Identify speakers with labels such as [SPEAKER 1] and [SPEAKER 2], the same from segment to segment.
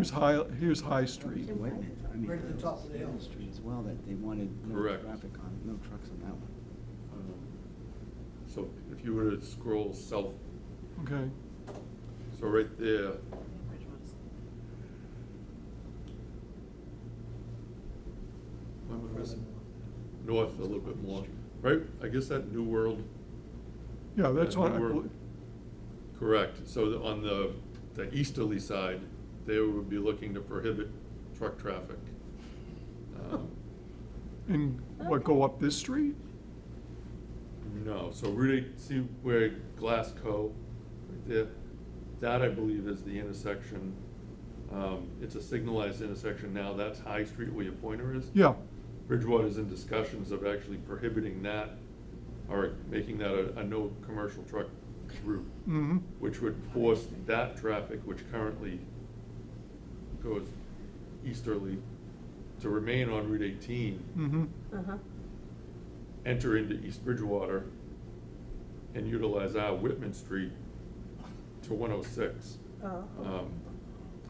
[SPEAKER 1] Here's High, here's High Street.
[SPEAKER 2] Wait a minute, I mean,
[SPEAKER 3] Right at the top of the hill.
[SPEAKER 2] Hill Street as well, that they wanted no
[SPEAKER 4] Correct.
[SPEAKER 2] traffic on, no trucks on that one.
[SPEAKER 4] Um, So if you were to scroll south,
[SPEAKER 1] Okay,
[SPEAKER 4] so right there, why am I missing? north a little bit more, right? I guess that New World,
[SPEAKER 1] yeah, that's
[SPEAKER 4] Yeah,
[SPEAKER 1] on,
[SPEAKER 4] we
[SPEAKER 1] I
[SPEAKER 4] were-
[SPEAKER 1] believe-
[SPEAKER 4] correct. So the- on the, the easterly side, they would be looking to prohibit truck traffic. Um,
[SPEAKER 1] and what, go up this street?
[SPEAKER 4] No, so really, see where Glasgow, right there, that I believe is the intersection. Um, it's a signalized intersection now, that's High Street where your pointer is.
[SPEAKER 1] Yeah,
[SPEAKER 4] Bridgewater's in discussions of actually prohibiting that, or making that a, a no commercial truck route,
[SPEAKER 1] mm-hmm,
[SPEAKER 4] which would force that traffic, which currently goes easterly, to remain on Route eighteen
[SPEAKER 1] mm-hmm,
[SPEAKER 3] Uh-huh.
[SPEAKER 4] enter into East Bridgewater and utilize our Whitman Street to one oh six. Um,
[SPEAKER 3] Oh.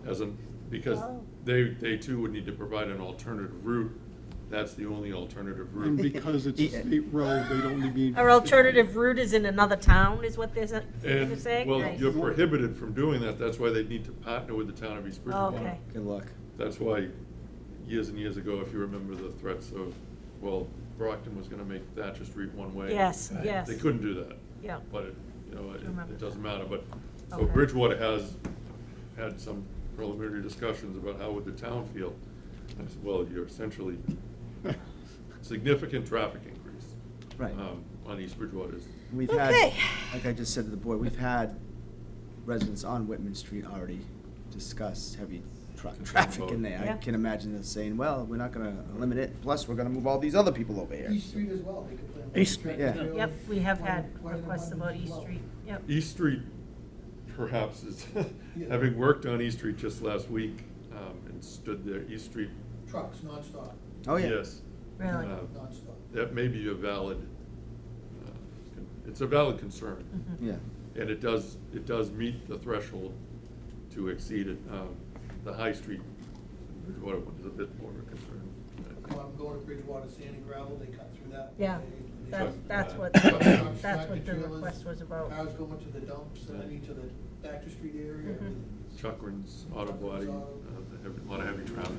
[SPEAKER 4] As an, because
[SPEAKER 3] Oh.
[SPEAKER 4] they, they too would need to provide an alternative route. That's the only alternative
[SPEAKER 5] And
[SPEAKER 4] route.
[SPEAKER 5] because it's a state road, they don't need to be.
[SPEAKER 3] Our alternative route is in another town, is what they're sa- they're
[SPEAKER 4] And,
[SPEAKER 3] saying?
[SPEAKER 4] well,
[SPEAKER 3] Nice.
[SPEAKER 4] you're prohibited from doing that. That's why they need to partner with the town of East Bridgewater.
[SPEAKER 3] Oh, Okay.
[SPEAKER 2] Good luck.
[SPEAKER 4] That's why, years and years ago, if you remember the threats of, well, Brockton was gonna make Thatcher Street one way.
[SPEAKER 3] Yes,
[SPEAKER 1] Right.
[SPEAKER 3] yes.
[SPEAKER 4] They couldn't do that.
[SPEAKER 3] Yeah.
[SPEAKER 4] But, it you know, it-
[SPEAKER 3] Remember
[SPEAKER 4] it doesn't matter, but, so
[SPEAKER 3] Okay.
[SPEAKER 4] Bridgewater has had some preliminary discussions about how would the town feel. I said, well, you're essentially significant traffic increase.
[SPEAKER 2] Right.
[SPEAKER 4] um, On East Bridgewater's.
[SPEAKER 2] We've had,
[SPEAKER 3] Okay.
[SPEAKER 2] like I just said to the board, we've had residents on Whitman Street already discuss heavy truck traffic in there. I
[SPEAKER 3] Yeah.
[SPEAKER 2] can imagine them saying, well, we're not gonna limit it, plus we're gonna move all these other people over here.
[SPEAKER 6] East Street as well, they complain. about
[SPEAKER 2] East Street,
[SPEAKER 6] tractor
[SPEAKER 2] yeah.
[SPEAKER 6] trailers,
[SPEAKER 3] Yep, we have
[SPEAKER 6] why-
[SPEAKER 3] had
[SPEAKER 6] why the
[SPEAKER 3] requests about
[SPEAKER 6] abundance is
[SPEAKER 3] East
[SPEAKER 6] low.
[SPEAKER 3] Street, yep.
[SPEAKER 4] East Street perhaps is, having worked on East Street just last week, um, and stood there, East Street.
[SPEAKER 6] Trucks nonstop,
[SPEAKER 2] Oh, yeah.
[SPEAKER 4] Yes.
[SPEAKER 3] Really?
[SPEAKER 4] Uh,
[SPEAKER 6] nonstop.
[SPEAKER 4] That may be a valid, uh, it's a valid concern.
[SPEAKER 3] Mhm.
[SPEAKER 2] Yeah,
[SPEAKER 4] And it does, it does meet the threshold to exceed it. Um, The High Street, Bridgewater one is a bit more of a
[SPEAKER 6] Come
[SPEAKER 4] concern.
[SPEAKER 6] on, Oh, I'm going to Bridgewater Sand and Gravel, they cut through that.
[SPEAKER 3] Yeah,
[SPEAKER 6] They-
[SPEAKER 3] that's,
[SPEAKER 4] But,
[SPEAKER 3] that's
[SPEAKER 4] uh,
[SPEAKER 3] what,
[SPEAKER 4] but-
[SPEAKER 3] that's what the
[SPEAKER 6] Tractor trailers,
[SPEAKER 3] request was about.
[SPEAKER 6] Cars going to the dumps, and then
[SPEAKER 4] Yeah.
[SPEAKER 6] into the Baxter Street area.
[SPEAKER 3] Mhm.
[SPEAKER 6] everything.
[SPEAKER 4] Chuckrin's Auto Body, uh, they have a lot of heavy traffic.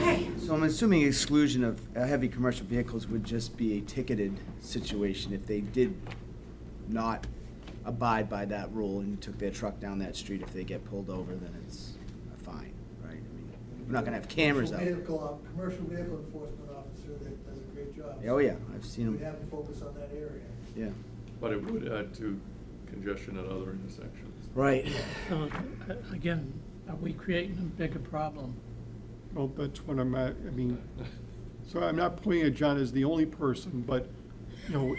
[SPEAKER 3] Okay.
[SPEAKER 2] so I'm assuming exclusion of uh, heavy commercial vehicles would just be a ticketed situation if they did not abide by that rule and took their truck down that street, if they get pulled over, then it's a fine, right? I mean, We're not gonna have cameras out
[SPEAKER 6] Commercial
[SPEAKER 2] there.
[SPEAKER 6] vehicle, op- commercial vehicle enforcement officer that does a great job.
[SPEAKER 2] Oh, yeah, I've seen
[SPEAKER 6] We'd
[SPEAKER 2] them,
[SPEAKER 6] have to focus on that area.
[SPEAKER 2] yeah.
[SPEAKER 4] But it would add to congestion at other intersections.
[SPEAKER 2] Right.
[SPEAKER 7] So, a- again, are we creating a bigger problem?
[SPEAKER 5] Well, Oh, that's what I'm at, I mean, so I'm not pointing at John as the only person, but, you know,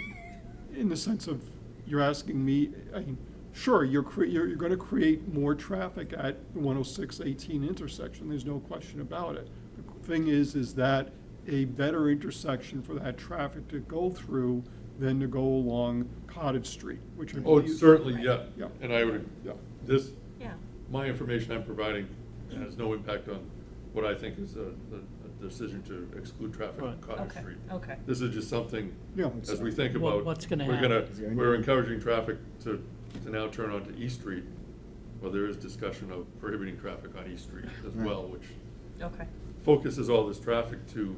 [SPEAKER 5] in the sense of, you're asking me, I mean, sure, you're cre, you're, you're gonna create more traffic at the 106, 18 intersection, there's no question about it. The Thing is, is that a better intersection for that traffic to go through than to go along Cottage Street, which I
[SPEAKER 4] Oh,
[SPEAKER 5] believe.
[SPEAKER 4] certainly, yeah.
[SPEAKER 5] Yeah.
[SPEAKER 4] And I would,
[SPEAKER 5] Yeah.
[SPEAKER 4] this,
[SPEAKER 3] Yeah,
[SPEAKER 4] my information I'm providing has no impact on what I think is a, a- a decision to exclude traffic on
[SPEAKER 7] Right.
[SPEAKER 4] Cottage
[SPEAKER 3] Okay,
[SPEAKER 4] Street.
[SPEAKER 3] okay.
[SPEAKER 4] This is just something,
[SPEAKER 5] Yeah.
[SPEAKER 4] as we think
[SPEAKER 7] What-
[SPEAKER 4] about.
[SPEAKER 7] what's gonna
[SPEAKER 4] We're gonna,
[SPEAKER 7] happen?
[SPEAKER 2] Is there any-
[SPEAKER 4] we're encouraging traffic to, to now turn onto East Street. Well, there is discussion of prohibiting traffic on East Street as
[SPEAKER 2] Right.
[SPEAKER 4] well, which
[SPEAKER 3] okay.
[SPEAKER 4] focuses all this traffic to,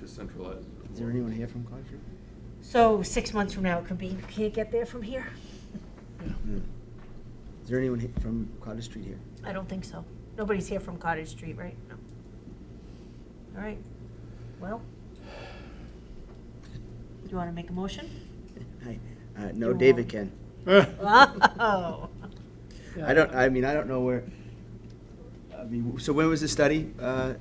[SPEAKER 4] to centralize. it
[SPEAKER 2] Is there
[SPEAKER 4] more.
[SPEAKER 2] anyone here from Concord?
[SPEAKER 3] So six months from now, it could be, you can't get there from here?
[SPEAKER 2] No. Hmm. Is there anyone he- from Cottage Street here?
[SPEAKER 3] I don't think so. Nobody's here from Cottage Street, right? No. All right, well. Do you want to make a motion?
[SPEAKER 2] Hi. Uh, no,
[SPEAKER 3] You're
[SPEAKER 2] David
[SPEAKER 3] wrong.
[SPEAKER 2] can.
[SPEAKER 3] Oh,
[SPEAKER 2] I don't, I mean, I don't know where, I mean, so when was the study, uh,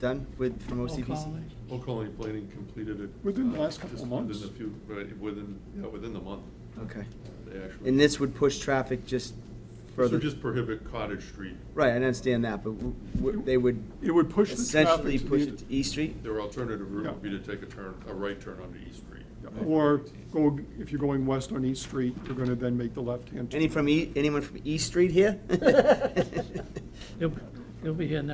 [SPEAKER 2] done with, from
[SPEAKER 7] Roll call,
[SPEAKER 2] OCPC?
[SPEAKER 7] Lee.
[SPEAKER 4] Old Colony Planning completed it.
[SPEAKER 5] Within the
[SPEAKER 4] uh,
[SPEAKER 5] last couple
[SPEAKER 4] just
[SPEAKER 5] of months.
[SPEAKER 4] Within a few, right, within, yeah, within the month,
[SPEAKER 2] Okay.
[SPEAKER 4] they actually.
[SPEAKER 2] And this would push traffic just
[SPEAKER 4] So
[SPEAKER 2] further?
[SPEAKER 4] just prohibit Cottage Street.
[SPEAKER 2] Right, I understand that, but w- w- they would
[SPEAKER 5] It would push the
[SPEAKER 2] essentially
[SPEAKER 5] traffic to
[SPEAKER 2] push
[SPEAKER 5] the,
[SPEAKER 2] it to East Street?
[SPEAKER 4] Their alternative route
[SPEAKER 5] Yeah.
[SPEAKER 4] would be to take a turn, a right turn onto East Street.
[SPEAKER 5] Or go, if you're going west on East Street, you're gonna
[SPEAKER 2] E,
[SPEAKER 5] then make the left-hand turn.
[SPEAKER 2] Any from E, anyone from East Street here?
[SPEAKER 7] It- He'll be here next